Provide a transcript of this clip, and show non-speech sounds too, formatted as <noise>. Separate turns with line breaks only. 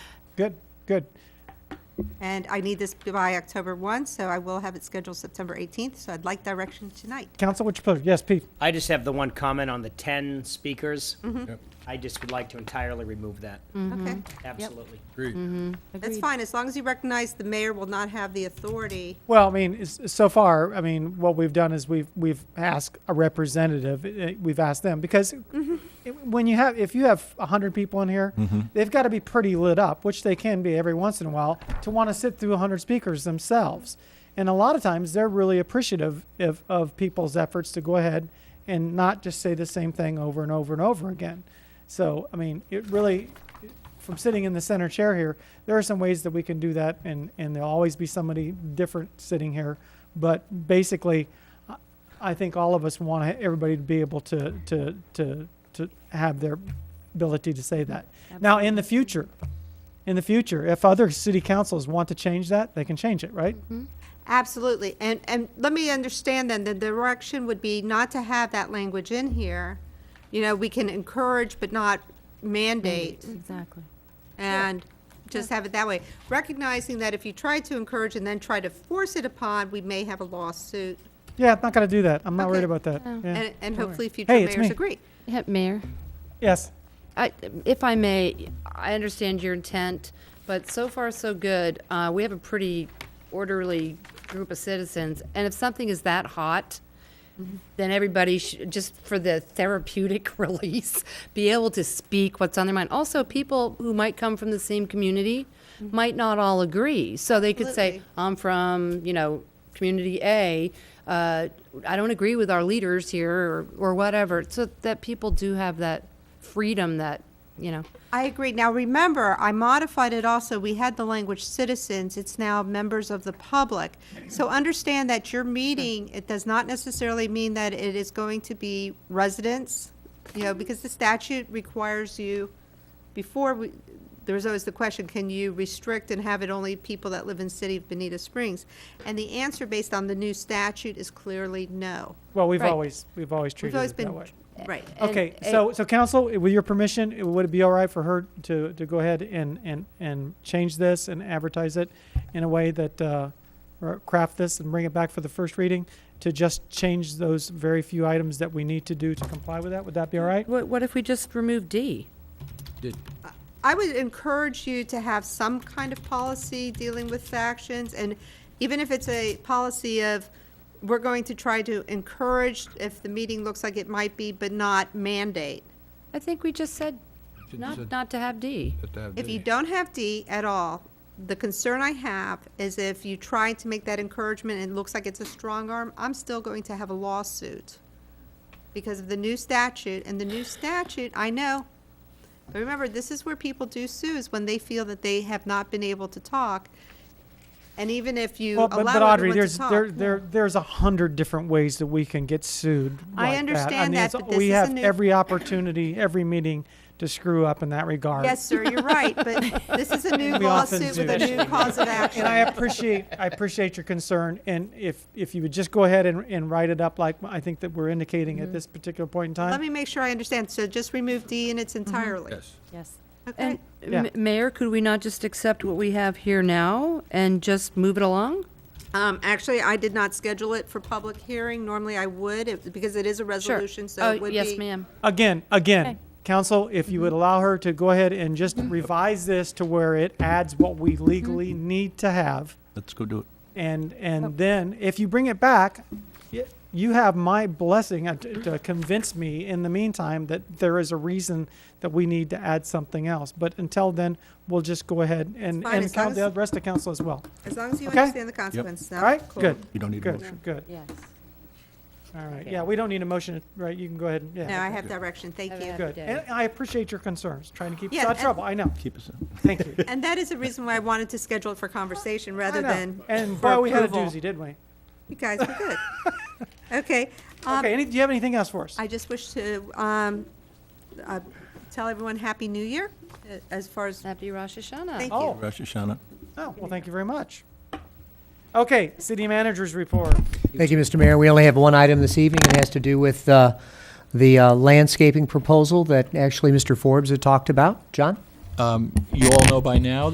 Good, good.
And I need this by October 1, so I will have it scheduled September 18th, so I'd like direction tonight.
Council, what you propose? Yes, Pete.
I just have the one comment on the 10 speakers. I just would like to entirely remove that.
Okay?
Absolutely.
Agreed.
That's
Agreed.
fine, as long as you recognize the mayor will not have the authority.
Well, I mean, it's- so far, I mean, what we've done is we've we've asked a representative. eh, We've asked them because it- when you have if you have hundred people in here, they've got to be pretty lit up, which they can be every once in a while, to want to sit through hundred speakers themselves. And a lot of times, they're really appreciative of, of people's efforts to go ahead and not just say the same thing over and over and over again. So, I mean, it really from sitting in the center chair here, there are some ways that we can do that, and, and there'll always be somebody different sitting here. But basically, I- I think all of us want everybody to be able to, to, to, to have their ability to say that. Now, in the future, in the future, if other city councils want to change that, they can change it, right?
Mm-hmm. Absolutely, and, and let me understand then, the direction would be not to have that language in here. You know, we can encourage but not mandate. mm,
Exactly.
and just have it that way. Recognizing that if you try to encourage and then try to force it upon, we may have a lawsuit,
Yeah, I'm not gonna do that. I'm not worried
Okay.
about that.
Oh.
Yeah.
and, and
worry.
hopefully future
Hey, it's
mayors
me.
agree.
Yeah, Mayor,
Yes,
I, if I may, I understand your intent, but so far, so good. Uh, we have a pretty orderly group of citizens, and if something is that hot, then everybody should, just for the therapeutic <laughs> release, be able to speak what's on their mind. Also, people who might come from the same community might not all agree, so they could say,
Absolutely.
I'm from, you know, community A. Uh, I don't agree with our leaders here or, or whatever. So that people do have that freedom that, you know,
I agree. Now, remember, I modified it also. We had the language citizens. It's now members of the public. So understand that your meeting, it does not necessarily mean that it is going to be residents, you know, because the statute requires you, before, we- there was always the question, can you restrict and have it only people that live in city of Benita Springs? And the answer based on the new statute is clearly no.
well, we've
Right.
always, we've always
We've
treated
always
it that
been,
way.
right.
And
Okay,
it-
so, so council, with your permission, it- would it be all right for her to, to go ahead and, and, and change this and advertise it in a way that, uh, or craft this and bring it back for the first reading to just change those very few items that we need to do to comply with that? Would that be all right?
What, what if we just remove D?
Did,
I would encourage you to have some kind of policy dealing with factions, and even if it's a policy of, we're going to try to encourage if the meeting looks like it might be, but not mandate.
I think we just said
Should-
not,
should-
not to have D.
did that-
If
did-
you don't have D at all, the concern I have is if you try to make that encouragement and it looks like it's a strong arm, I'm still going to have a lawsuit because of the new statute, and the new statute, I know. But remember, this is where people do sue, is when they feel that they have not been able to talk. And even if you
Well, but, but
allow
Audrey,
everyone to
there's, there,
talk.
there, there's a hundred different ways that we can get sued
I
like mean,
understand that,
it's-
but this
We
is a
have
new-
every opportunity, every meeting to screw up in that regard.
Yes, sir, you're right, but
<laughs>
this is a new
We often
lawsuit with a
do.
new cause of action.
And I appreciate, I appreciate your concern, and if, if you would just go ahead and, and write it up like I think that we're indicating at this particular point in
Mm-hmm. Let
time.
me make sure I understand, so just remove D in
Mm-hmm.
its entirely.
Yes.
Yes.
Okay.
And,
Yeah.
M- Mayor, could we not just accept what we have here now and just move it along?
Um, actually, I did not schedule it for public hearing. Normally I would, it- because it is a
Sure.
resolution, so
Oh,
it would be.
Yes, ma'am.
Again, again,
Okay.
council, if you
Mm-hmm.
would allow her to go ahead and just revise this to where it adds what we legally
Mm-hmm.
need to have,
Let's go do it.
and,
Oh.
and then if you bring it back, y- you have my blessing uh, to to convince me in the meantime that there is a reason that we need to add something else. But until then, we'll just go ahead and,
fine,
and
as Oh, long
count the
as-
rest of council as well.
As long as you
Okay.
understand the consequences.
All right, good.
You don't need a
Good,
motion.
good.
Yes.
All right.
Okay.
Yeah, we don't need a motion, right? You can go ahead and,
No, I
yeah.
have direction. Thank
Have
you.
a-
Good. And I appreciate your concerns, trying to keep us
Yeah,
out of
and-
trouble. I know.
Keep us.
Thank you.
And that is the reason why I wanted to schedule it for conversation
I
rather
know.
than
And
for
boy, we had a
approval.
doozy, didn't we?
You guys were
<laughs>
good. Okay. um,
Okay, any, do you have anything else for us?
I just wish to, um, uh, tell everyone Happy New Year uh, as far as,
Happy Rosh Hashanah.
thank you.
Oh,
Rosh Hashanah.
oh, well, thank you very much. Okay, city managers report.
Thank you, Mr. Mayor. We only have one item this evening. It has to do with uh, the uh, landscaping proposal that actually Mr. Forbes had talked about. John?
You all know by now